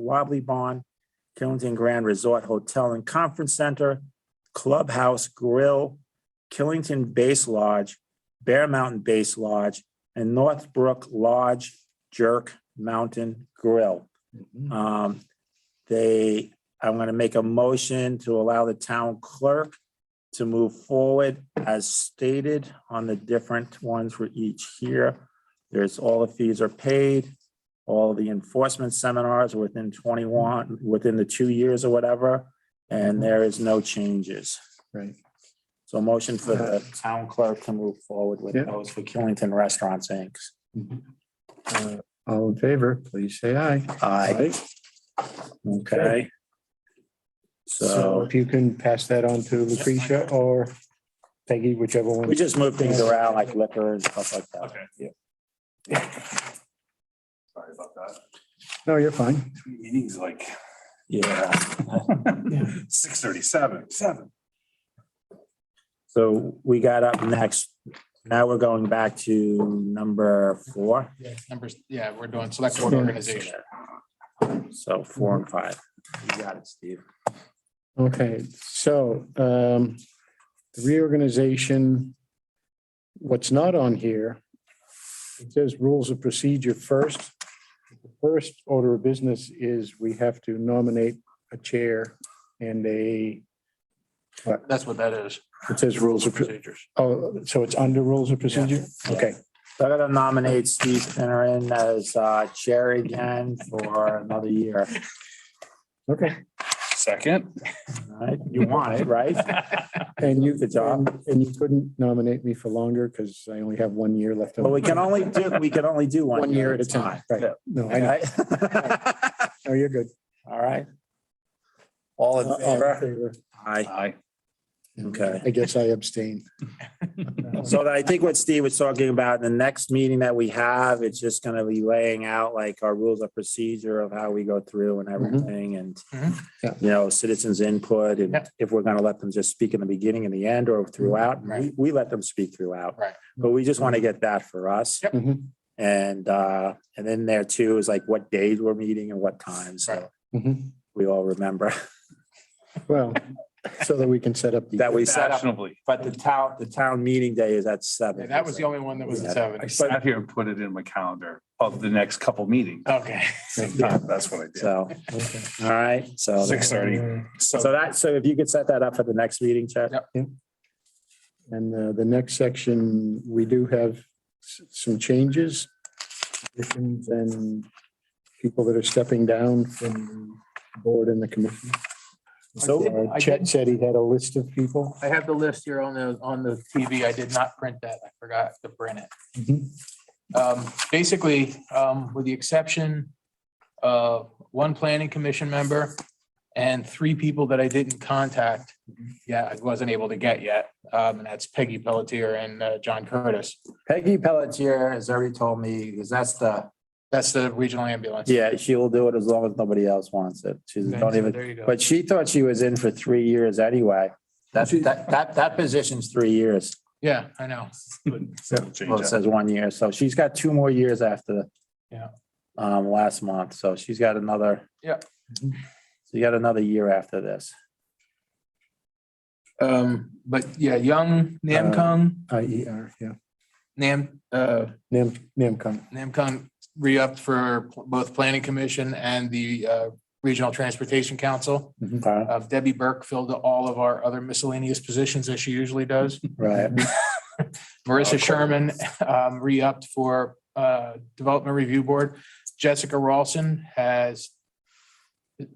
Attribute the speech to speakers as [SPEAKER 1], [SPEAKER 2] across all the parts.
[SPEAKER 1] Wobbly Barn, Killington Grand Resort Hotel and Conference Center, Clubhouse Grill, Killington Base Lodge, Bear Mountain Base Lodge, and Northbrook Lodge Jerk Mountain Grill. Um, they, I'm gonna make a motion to allow the town clerk to move forward as stated on the different ones for each here. There's all the fees are paid, all the enforcement seminars are within twenty-one, within the two years or whatever, and there is no changes.
[SPEAKER 2] Right.
[SPEAKER 1] So motion for the town clerk to move forward with
[SPEAKER 2] Yeah.
[SPEAKER 1] those for Killington Restaurants, Inc.
[SPEAKER 2] Uh, All in favor, please say aye.
[SPEAKER 1] Aye. Okay.
[SPEAKER 2] So
[SPEAKER 1] So
[SPEAKER 2] if you can pass that on to Lucretia or Peggy, whichever one.
[SPEAKER 1] we just move things around like liquor and stuff like that.
[SPEAKER 3] Okay. Sorry about that.
[SPEAKER 2] No, you're fine.
[SPEAKER 3] Meeting's like
[SPEAKER 1] Yeah.
[SPEAKER 3] six thirty-seven, seven.
[SPEAKER 1] So we got up next. Now we're going back to number four.
[SPEAKER 4] Yeah, numbers, yeah, we're doing select board organization.
[SPEAKER 1] So four and five. You got it, Steve.
[SPEAKER 2] Okay, so um, the reorganization, what's not on here, it says rules of procedure first. The First order of business is we have to nominate a chair and a,
[SPEAKER 4] That's what that is.
[SPEAKER 2] it says rules of, pro-
[SPEAKER 4] procedures.
[SPEAKER 2] oh, so it's under rules of procedure? Okay.
[SPEAKER 1] So I'm gonna nominate Steve Finneran as uh, chair again for another year.
[SPEAKER 2] Okay.
[SPEAKER 3] Second.
[SPEAKER 1] All right? You want it, right?
[SPEAKER 2] And you,
[SPEAKER 1] Good job.
[SPEAKER 2] and you couldn't nominate me for longer because I only have one year left. on-
[SPEAKER 1] But we can only do, we can only do one.
[SPEAKER 2] One year at a time. Right. No, I know.
[SPEAKER 1] Right?
[SPEAKER 2] No, you're good.
[SPEAKER 1] All right. All in
[SPEAKER 2] Uh, all in
[SPEAKER 1] favor?
[SPEAKER 2] favor.
[SPEAKER 1] Aye.
[SPEAKER 3] Aye.
[SPEAKER 1] Okay.
[SPEAKER 2] I guess I abstain.
[SPEAKER 1] So I think what Steve was talking about, the next meeting that we have, it's just gonna be laying out like our rules of procedure of how we go through and
[SPEAKER 4] Mm-hmm.
[SPEAKER 1] everything and
[SPEAKER 4] Mhm.
[SPEAKER 2] Yeah.
[SPEAKER 1] you know, citizens input and
[SPEAKER 4] Yeah. Mm-hmm.
[SPEAKER 1] if we're gonna let them just speak in the beginning and the end or throughout, we,
[SPEAKER 4] Right.
[SPEAKER 1] we let them speak throughout.
[SPEAKER 4] Right. Mm-hmm.
[SPEAKER 1] But we just want to get that for us.
[SPEAKER 4] Yep.
[SPEAKER 2] Mhm.
[SPEAKER 1] And, uh, and then there too is like what days we're meeting and what times. So
[SPEAKER 4] Right.
[SPEAKER 2] Mhm.
[SPEAKER 1] we all remember
[SPEAKER 2] Well, so that we can set up. the-
[SPEAKER 1] that we set up.
[SPEAKER 3] Fashionably.
[SPEAKER 1] But the town, the town meeting day is at
[SPEAKER 4] Yeah,
[SPEAKER 1] seven.
[SPEAKER 4] That was the only one that was at
[SPEAKER 3] I
[SPEAKER 4] seven.
[SPEAKER 3] sat here and put it in my calendar of the next couple meetings.
[SPEAKER 4] Okay.
[SPEAKER 3] That's what I did.
[SPEAKER 1] So, all right, so.
[SPEAKER 3] Six thirty.
[SPEAKER 1] So that, so if you could set that up for the next meeting, Chad?
[SPEAKER 4] Yep.
[SPEAKER 2] And uh, the next section, we do have s- some changes. additions, And people that are stepping down from the board and the commission.
[SPEAKER 1] So,
[SPEAKER 2] Uh, Chet said he had a list of people.
[SPEAKER 4] I have the list here on the, on the TV. I did not print that. I forgot to print it.
[SPEAKER 2] Mm-hmm.
[SPEAKER 4] Um, basically, um, with the exception of one planning commission member and three people that I didn't contact, yeah, I wasn't able to get yet. Um, and that's Peggy Pelletier and, uh, John Curtis.
[SPEAKER 1] Peggy Pelletier has already told me, because that's the.
[SPEAKER 4] That's the regional ambulance.
[SPEAKER 1] Yeah, she'll do it as long as nobody else wants it. She's
[SPEAKER 4] Okay,
[SPEAKER 1] don't
[SPEAKER 4] so
[SPEAKER 1] even,
[SPEAKER 4] There you go.
[SPEAKER 1] but she thought she was in for three years anyway. That's, that, that, that position's three years.
[SPEAKER 4] Yeah, I know.
[SPEAKER 1] Well, it says one year, so she's got two more years after.
[SPEAKER 4] Yeah.
[SPEAKER 1] Um, last month, so she's got another.
[SPEAKER 4] Yep.
[SPEAKER 1] So you got another year after this.
[SPEAKER 4] Um, but yeah, Young, Namkung,
[SPEAKER 2] I E R, yeah.
[SPEAKER 4] Nam, uh,
[SPEAKER 2] Nam, Namcon.
[SPEAKER 4] Namkung re-upped for both Planning Commission and the, uh, Regional Transportation Council.
[SPEAKER 1] Okay,
[SPEAKER 4] Uh, Debbie Burke filled all of our other miscellaneous positions as she usually does.
[SPEAKER 1] Right,
[SPEAKER 4] Marissa Sherman, um, re-upped for, uh, Development Review Board. Jessica Rawson has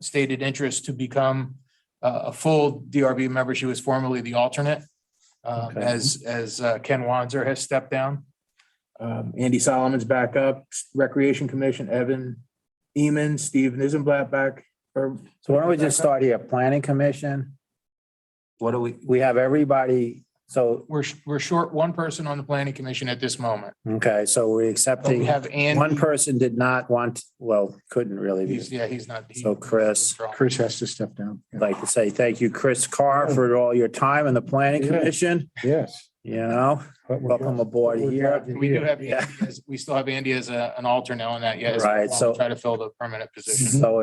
[SPEAKER 4] stated interest to become uh, a full DRB member. She was formerly the alternate. um,
[SPEAKER 1] Okay.
[SPEAKER 4] as, as uh, Ken Wanzer has stepped down. Um, Andy Solomon's back up, Recreation Commission, Evan Eman, Steve Nizenblatt back, or
[SPEAKER 1] so why don't we just start here, planning commission? What do we, we have everybody, so,
[SPEAKER 4] we're, sh- we're short one person on the planning commission at this moment.
[SPEAKER 1] okay, so we're
[SPEAKER 4] But we
[SPEAKER 1] accepting.
[SPEAKER 4] have Andy.
[SPEAKER 1] One person did not want, well, couldn't really,
[SPEAKER 4] He's,
[SPEAKER 1] because
[SPEAKER 4] yeah, he's not. he-
[SPEAKER 1] So Chris.
[SPEAKER 2] Chris has to step down.
[SPEAKER 1] I'd like to say thank you, Chris Carr, for all your time in the planning
[SPEAKER 2] Yeah.
[SPEAKER 1] commission,
[SPEAKER 2] Yes.
[SPEAKER 1] you know,
[SPEAKER 2] but we're-
[SPEAKER 1] welcome aboard
[SPEAKER 2] we're
[SPEAKER 1] here.
[SPEAKER 2] glad you're
[SPEAKER 4] We do
[SPEAKER 2] here.
[SPEAKER 4] have,
[SPEAKER 1] Yeah.
[SPEAKER 4] Andy as- we still have Andy as a, an alternate on that, yes.
[SPEAKER 1] Right, so-
[SPEAKER 4] Try to fill the permanent position.
[SPEAKER 1] So